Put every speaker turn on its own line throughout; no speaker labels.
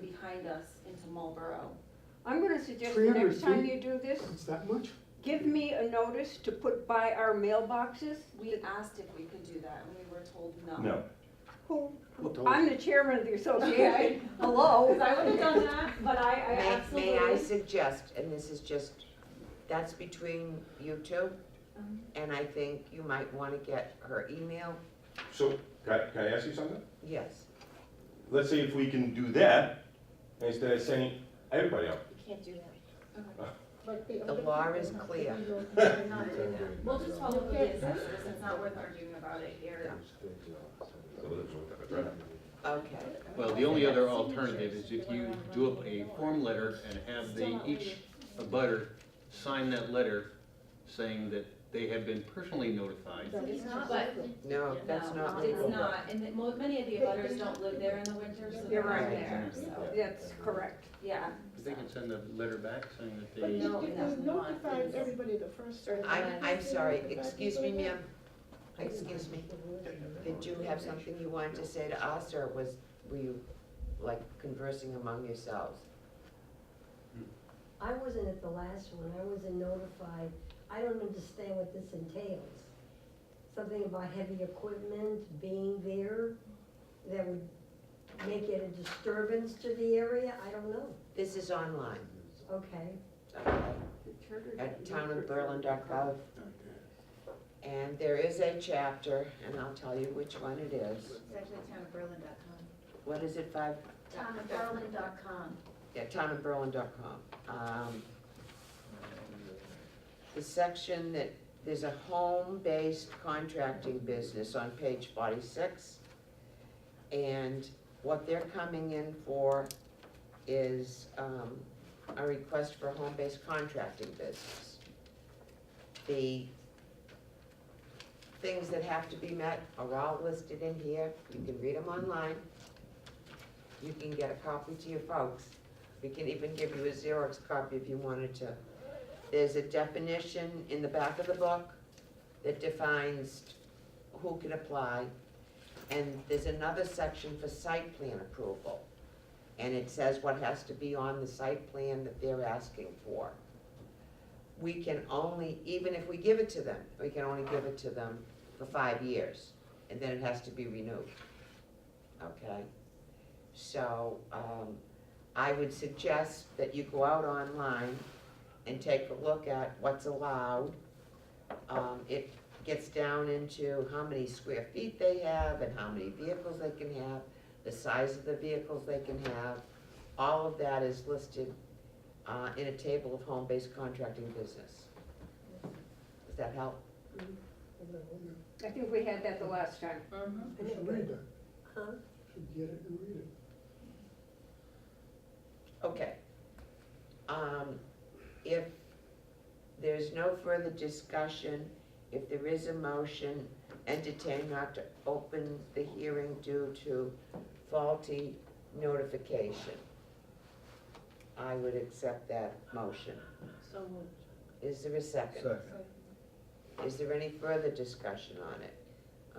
behind us into Marlboro. I'm gonna suggest the
300
next time
feet?
you do this,
It's that much?
give me a notice to put by our mailboxes. We asked if we could do that and we were told no.
No,
Who,
Who told
I'm
you?
the chairman of the association, hello.
Because I would've done that, but I, I
May,
absolutely.
may I suggest, and this is just, that's between you two,
Um,
and I think you might wanna get her email,
so, can I, can I ask you something?
yes.
Let's say if we can do that, instead of saying, everybody else,
You can't do that.
But they
The
only
law
can-
is
they're not-
clear.
they're not-
Not doing that. We'll just follow with the assessors, it's not worth arguing about it here.
Okay,
Well, the only other alternative is if you do up a form letter and have they, each abutter sign that letter saying that they have been personally notified.
It's not, but-
no, that's
No,
not
It's
legal.
not, and it- mo- many of the abutters don't live there in the winter, so
You're
they're not
right.
there, so,
That's correct.
yeah.
They can send a letter back saying
But
that they,
if
that's
they
not-
notified everybody the first. time,
I'm, I'm sorry,
notified
excuse me,
people
ma'am,
again.
excuse me, did you have something you wanted to say to us, or was, were you like conversing among yourselves?
I wasn't at the last one, I wasn't notified, I don't understand what this entails. Something about heavy equipment being there that would make it a disturbance to the area, I don't know,
This is online,
okay?
okay, at
At
townofberlin.gov, and there is a chapter, and I'll tell you which one it is.
It's actually townofberlin.com.
What is it, five,
Townofberlin.com.
yeah, townofberlin.com. Um, The section that, there's a home-based contracting business on page forty-six. And what they're coming in for is, um, a request for a home-based contracting business. The things that have to be met are all listed in here, you can read them online. You can get a copy to your folks, we can even give you a Xerox copy if you wanted to. There's a definition in the back of the book that defines who can apply. And there's another section for site plan approval. And it says what has to be on the site plan that they're asking for. We can only, even if we give it to them, we can only give it to them for five years. And then it has to be renewed. Okay? So, um, I would suggest that you go out online and take a look at what's allowed. Um, it gets down into how many square feet they have and how many vehicles they can have, the size of the vehicles they can have. All of that is listed, uh, in a table of home-based contracting business. Does that help?
I think we had that the last time.
Mhm.
You should read that,
Huh?
You should get it and read it.
Okay. Um, if there's no further discussion, if there is a motion, entertain not to open the hearing due to faulty notification. I would accept that motion.
So moved.
Is there a second? Is there any further discussion on it?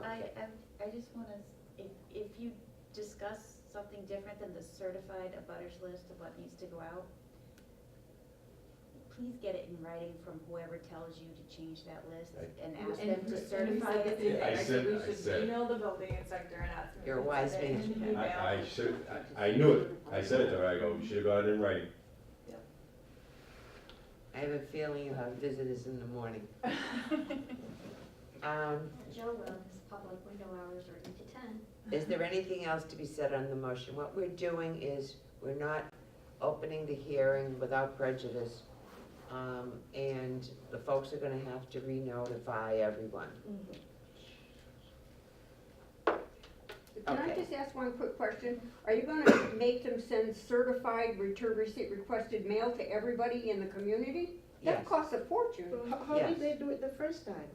I,
Okay.
I, I just wanna, s- if, if you discuss something different than the certified abutters list of what needs to go out, please get it in writing from whoever tells you to change that list
Right.
and
And-
ask them
and
to
we
certify
said
it.
the
Yeah, I
thing,
said- I
We
said-
should email the building inspector and ask him.
You're
if
a
he
wise
said it
man.
in an email.
I, I should, I, I knew it, I said it to her, I go, you should have got it in writing.
I have a feeling you'll have visitors in the morning. Um,
Joe will, his public window hours are eight to ten.
Is there anything else to be said on the motion? What we're doing is, we're not opening the hearing without prejudice. Um, and the folks are gonna have to re-notify everyone.
Can I
Okay.
just ask one quick question? Are you gonna make them send certified return receipt requested mail to everybody in the community? That
Yes,
costs a fortune.
Well, How, how did
Yes.
they do it the first time?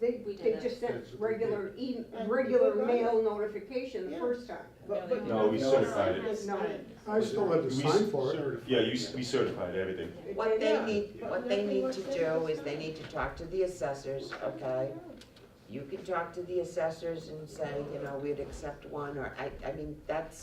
They,
We
they
did
just sent
That's what we
regular e,
And
regular
people got
mail notification the
Yeah.
first time.
But-
they
but
No,
not
we
the
certified
first
it.
time.
No.
I still had to sign for it.
Yeah, you, s- we certified everything.
What they
Yeah.
need, what they need to do is they need to talk to the assessors, okay? You can talk to the assessors and say, you know, we'd accept one, or I, I mean, that's